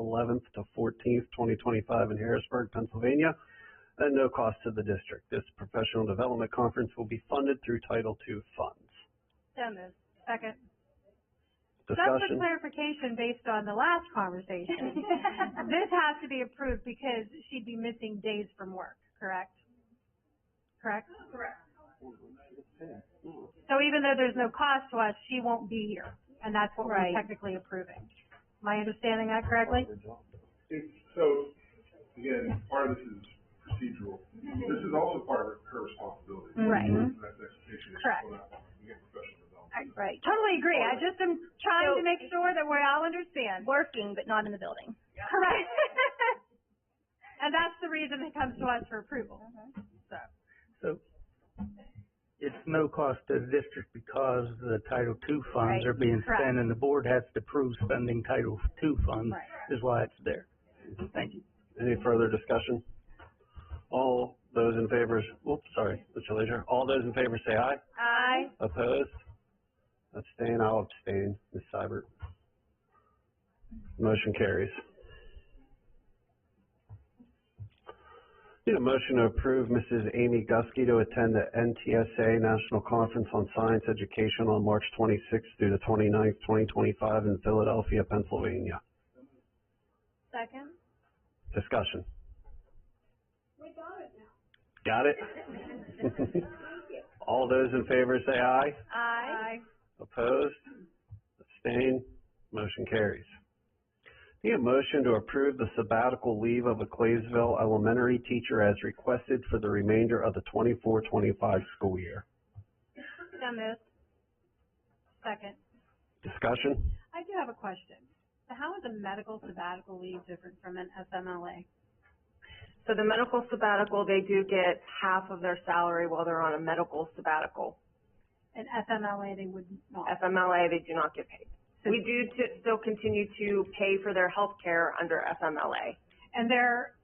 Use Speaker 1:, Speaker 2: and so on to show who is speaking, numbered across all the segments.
Speaker 1: eleventh to fourteenth, twenty twenty-five in Harrisburg, Pennsylvania, at no cost to the district. This professional development conference will be funded through Title II funds.
Speaker 2: So moved. Second.
Speaker 3: Just for
Speaker 1: Discussion?
Speaker 3: clarification, based on the last conversation, this has to be approved because she'd be missing days from work, correct? Correct? Correct. So even though there's no cost to us, she won't be here, and that's what we're
Speaker 2: Right.
Speaker 3: technically approving. Am I understanding that correctly?
Speaker 4: It's, so, again, part of this is procedural. This is also part of her responsibility.
Speaker 2: Right.
Speaker 4: And That's education. It's
Speaker 3: Correct.
Speaker 4: still not- You get professional development.
Speaker 2: Right.
Speaker 3: Totally agree, I just am trying to
Speaker 2: So-
Speaker 3: make sure that we all understand.
Speaker 2: Working, but not in the building.
Speaker 3: Correct. And that's the reason it comes to us for approval, so.
Speaker 5: So it's no cost to the district because the Title II funds
Speaker 2: Right.
Speaker 5: are being
Speaker 3: Correct.
Speaker 5: spent and the board has to approve spending Title II funds
Speaker 2: Right.
Speaker 5: is why it's there. Thank you.
Speaker 1: Any further discussion? All those in favor, oops, sorry, Mr. Leisure, all those in favor say aye.
Speaker 3: Aye.
Speaker 1: Opposed? Abstain, I'll abstain, Ms. Seibert. Motion carries. Need a motion to approve Mrs. Amy Gusky to attend the NTSA National Conference on Science Education on March twenty-sixth through the 29th, twenty-five in Philadelphia, Pennsylvania.
Speaker 3: Second?
Speaker 1: Discussion. We got it now. Got it? All those in favor say aye.
Speaker 3: Aye.
Speaker 1: Opposed? Abstained? Motion carries. Need a motion to approve the sabbatical leave of a Claysville elementary teacher as requested for the remainder of the 24-25 school year.
Speaker 3: So moved. Second.
Speaker 1: Discussion?
Speaker 3: I do have a question. So how is a medical sabbatical leave different from an FMLA?
Speaker 6: So the medical sabbatical, they do get half of their salary while they're on a medical sabbatical.
Speaker 3: An FMLA, they would not.
Speaker 6: FMLA, they do not get paid. We do to, still continue to pay for their health care under FMLA.
Speaker 3: And they're,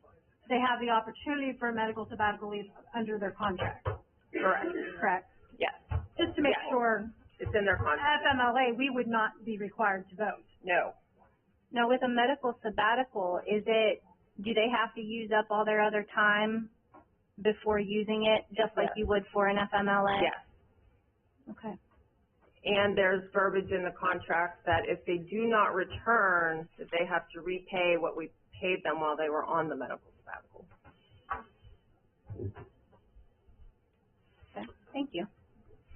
Speaker 3: they have the opportunity for a medical sabbatical leave under their contract,
Speaker 6: Correct.
Speaker 3: correct?
Speaker 6: Yes,
Speaker 3: Just to make
Speaker 6: Yes.
Speaker 3: sure,
Speaker 6: it's in their contract.
Speaker 3: FMLA, we would not be required to vote.
Speaker 6: No.
Speaker 2: Now, with a medical sabbatical, is it, do they have to use up all their other time before using it, just like
Speaker 6: Yes.
Speaker 2: you would for an FMLA?
Speaker 6: Yes.
Speaker 2: Okay.
Speaker 6: And there's verbiage in the contract that if they do not return, that they have to repay what we paid them while they were on the medical sabbatical.
Speaker 2: Okay. Thank you.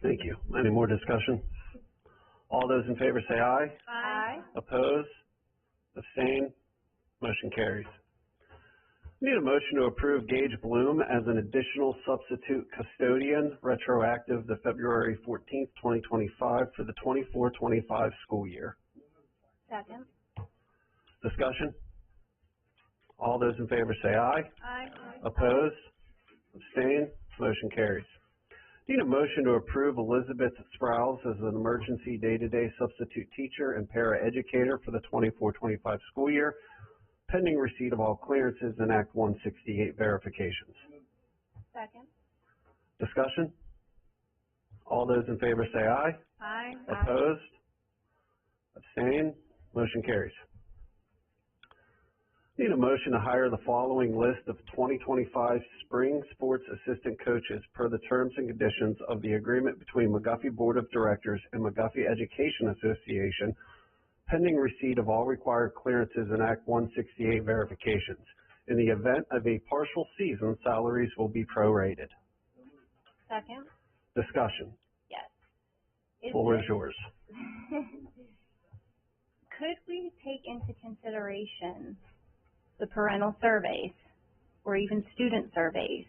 Speaker 1: Thank you. Any more discussion? All those in favor say aye.
Speaker 3: Aye.
Speaker 1: Opposed? Abstain? Motion carries. Need a motion to approve Gage Bloom as an additional substitute custodian retroactive to February fourteenth, twenty twenty-five for the 24-25 school year.
Speaker 3: Second.
Speaker 1: Discussion? All those in favor say aye.
Speaker 3: Aye.
Speaker 1: Opposed? Abstain? Motion carries. Need a motion to approve Elizabeth Sprouse as an emergency day-to-day substitute teacher and paraeducator for the 24-25 school year, pending receipt of all clearances and Act one sixty-eight verifications.
Speaker 3: Second.
Speaker 1: Discussion? All those in favor say aye.
Speaker 3: Aye.
Speaker 1: Opposed? Abstain? Motion carries. Need a motion to hire the following list of twenty twenty-five spring sports assistant coaches per the terms and conditions of the agreement between McGuffey Board of Directors and McGuffey Education Association, pending receipt of all required clearances and Act one sixty-eight verifications. In the event of a partial season, salaries will be prorated.
Speaker 3: Second.
Speaker 1: Discussion.
Speaker 2: Yes. Is
Speaker 1: Floor is
Speaker 2: it-
Speaker 1: yours.
Speaker 2: Could we take into consideration the parental surveys or even student surveys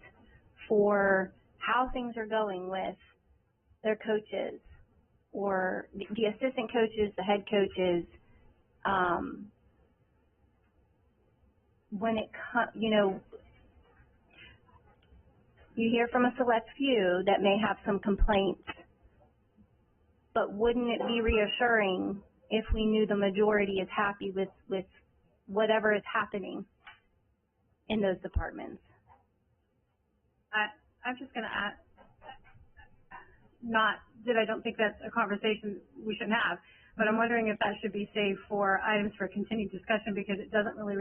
Speaker 2: for how things are going with their coaches or the- the assistant coaches, the head coaches, um, when it co- you know, you hear from a select few that may have some complaints, but wouldn't it be reassuring if we knew the majority is happy with, with whatever is happening in those departments?
Speaker 3: I, I'm just gonna add, not that I don't think that's a conversation we shouldn't have, but I'm wondering if that should be saved for items for continued discussion because it doesn't really